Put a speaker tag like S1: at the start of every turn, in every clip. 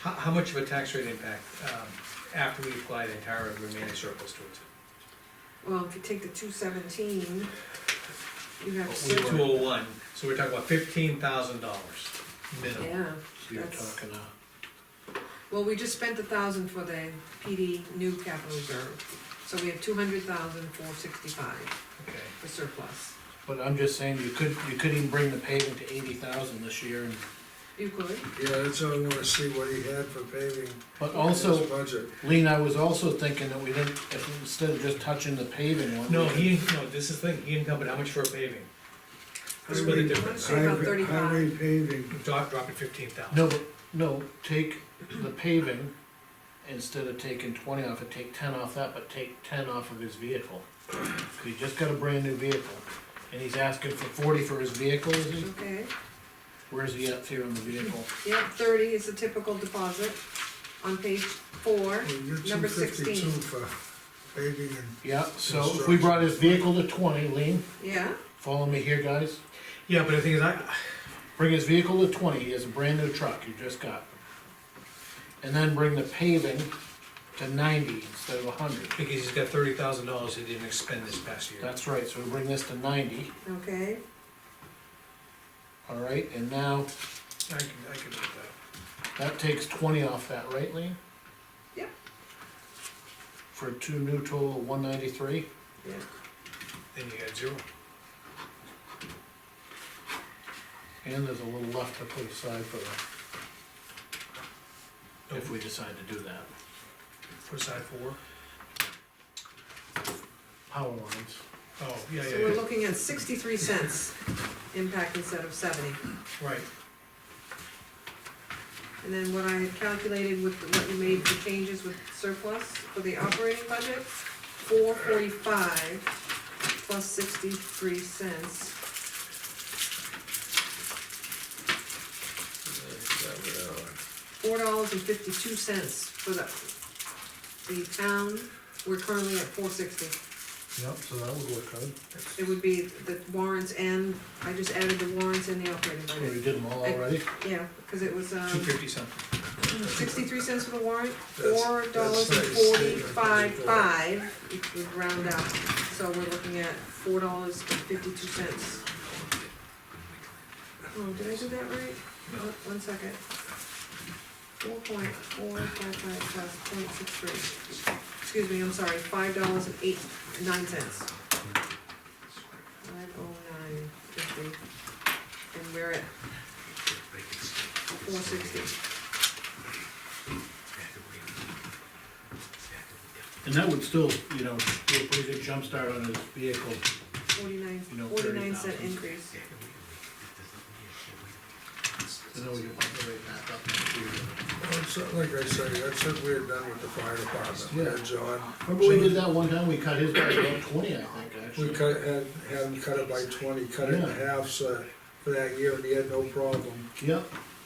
S1: How, how much of a tax rate impact, um, after we apply the entire remaining surplus towards it?
S2: Well, if you take the two seventeen, you have
S1: Two
S2: six,
S1: oh one, so we're talking about fifteen thousand dollars minimum.
S2: yeah.
S3: You're
S2: That's-
S3: talking, uh,
S2: Well, we just spent a thousand for the PD new capital reserve, so we have two hundred thousand four sixty-five
S1: Okay,
S2: for surplus.
S3: but I'm just saying, you could, you could even bring the paving to eighty thousand this year, and,
S2: You could,
S4: Yeah, that's what I wanna see what he had for paving.
S3: but
S4: in
S3: also,
S4: his Budget.
S3: Lean, I was also thinking that we didn't, if, instead of just touching the paving one.
S1: no,
S3: we could-
S1: he, no, this is the thing, he encumbered how much for paving? Let's split the
S4: Highway-
S1: difference,
S2: Say about
S4: highway-
S2: 35.
S4: Highway paving,
S1: drop, drop it fifteen thousand.
S3: No, but, no, take the paving, instead of taking twenty off it, take ten off that, but take ten off of his vehicle. 'Cause he just got a brand new vehicle, and he's asking for forty for his vehicle, is he?
S2: okay,
S3: Where's he at here on the vehicle?
S2: yeah, thirty is a typical deposit on page four,
S4: well, you get two
S2: number sixteen.
S4: fifty-two for paving and,
S3: Yeah, so if we brought his vehicle to twenty, Lean,
S2: yeah,
S3: follow me here, guys.
S1: Yeah, but the thing is, I,
S3: Bring his vehicle to twenty, he has a brand new truck you just got. And then bring the paving to ninety instead of hundred.
S1: because he's got thirty thousand dollars he didn't expend this past year.
S3: That's right, so we bring this to ninety,
S2: okay,
S3: all right, and now
S1: I can, I can make that.
S3: that takes twenty off that, right, Lean?
S2: Yep.
S3: For two new total of one ninety-three,
S2: yeah.
S1: Then you got zero.
S3: and there's a little left to put aside for the, if we decide to do that.
S1: Put aside four.
S3: Power lines,
S1: Oh, yeah,
S2: So
S1: yeah,
S2: we're
S1: yeah,
S2: looking at sixty-three cents impact instead of seventy.
S1: right.
S2: And then what I had calculated with the- what you made for changes with surplus for the operating budget, four forty-five plus sixty-three cents. Four dollars and fifty-two cents for the, the town, we're currently at four sixty.
S3: yep, so that would work out,
S2: It would be the warrants and, I just added the warrants and the operating
S3: so we
S2: budget,
S3: did them all already,
S2: yeah, cause it was,
S1: Two
S2: um,
S1: fifty something.
S2: sixty-three cents for the warrant,
S4: That's-
S2: four
S4: that's
S2: dollars and
S4: nice.
S2: forty-five five, if we round up. So we're looking at four dollars and fifty-two cents. Oh, did I do that right?
S1: No.
S2: Oh, One second. Four point four five five five point six three. Excuse me, I'm sorry, five dollars and eight, nine cents. Five oh nine fifty, and we're at four sixty.
S3: and that would still, you know, do a pretty good jump start on his vehicle.
S2: Forty-nine,
S3: You know,
S2: forty-nine cent
S3: 30,000.
S2: increase.
S3: And then we can rate that up next year.
S4: well, it's not like I say, that's what we had done with the fire department, we had John.
S3: Remember we did that one time, we cut his by about twenty, I think,
S4: We
S3: actually.
S4: cut, had, had him cut it by twenty, cut it in
S3: Yeah.
S4: half, so, for that year, and he had no problem.
S3: Yep.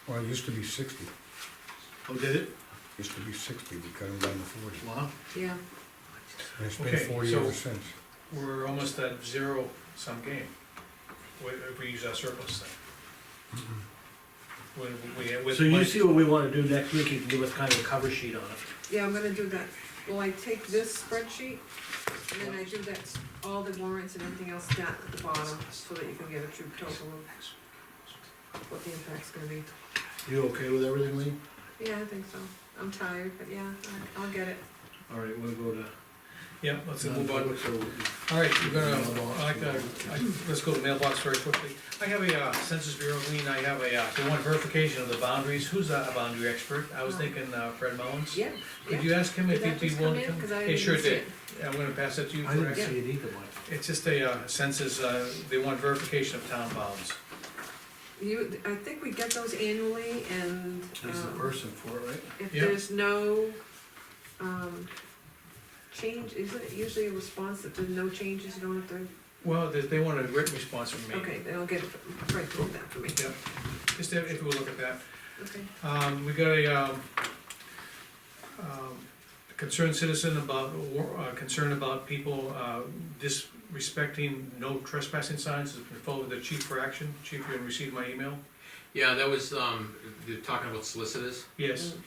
S5: Well, it used to be sixty,
S3: Oh, did it?
S5: used to be sixty, we cut them down to forty,
S3: Wow.
S2: Yeah,
S5: and it's been
S1: Okay,
S5: forty
S1: so-
S5: ever since.
S1: We're almost at zero sum game, wi- if we use our surplus thing. When we, with.
S3: So you
S1: my-
S3: see what we wanna do next week, you can give us kind of a cover sheet on it.
S2: yeah, I'm gonna do that. Will I take this spreadsheet? And then I do that, all the warrants and everything else down at the bottom, so that you can get a true total of what the impact's gonna be.
S3: You okay with everything, Lee?
S2: Yeah, I think so. I'm tired, but yeah, I- I'll get it.
S3: All right, we'll go to.
S1: Yeah, let's move on.
S3: non-public, so we'll-
S1: All right, you're gonna, I like to, I- let's go to mailbox very quickly. I have a uh, Census Bureau lien, I have a, uh, they want verification of the boundaries, who's a a boundary expert? I was thinking uh, Fred Mullins.
S2: Oh. Yeah,
S1: Could
S2: yeah.
S1: you ask him
S2: Did
S1: if
S2: that
S1: he'd be
S2: just come
S1: willing to
S2: in?
S1: come?
S2: Cause I
S1: It
S2: didn't
S1: sure
S2: even see
S1: did.
S2: it.
S1: I'm gonna pass that to you.
S3: I
S1: for-
S3: didn't see it either, Mike.
S1: It's just a uh, census, uh, they want verification of town bounds.
S2: You, I think we get those annually and,
S3: He's the
S2: um,
S3: person for it, right?
S2: if
S1: Yeah.
S2: there's no, um, change, isn't it usually a response that there's no changes, you don't have to
S1: Well, they, they want a written response from me.
S2: Okay, then I'll get, right, do that for me,
S1: Yep, just if if we'll look at that.
S2: okay.
S1: Um, we got a, um, um, concerned citizen about, war- uh, concern about people, uh, disrespecting no trespassing signs, has been forwarded to the chief for action. Chief, you received my email?
S6: Yeah, that was, um, you're talking about solicitors?
S1: Yes,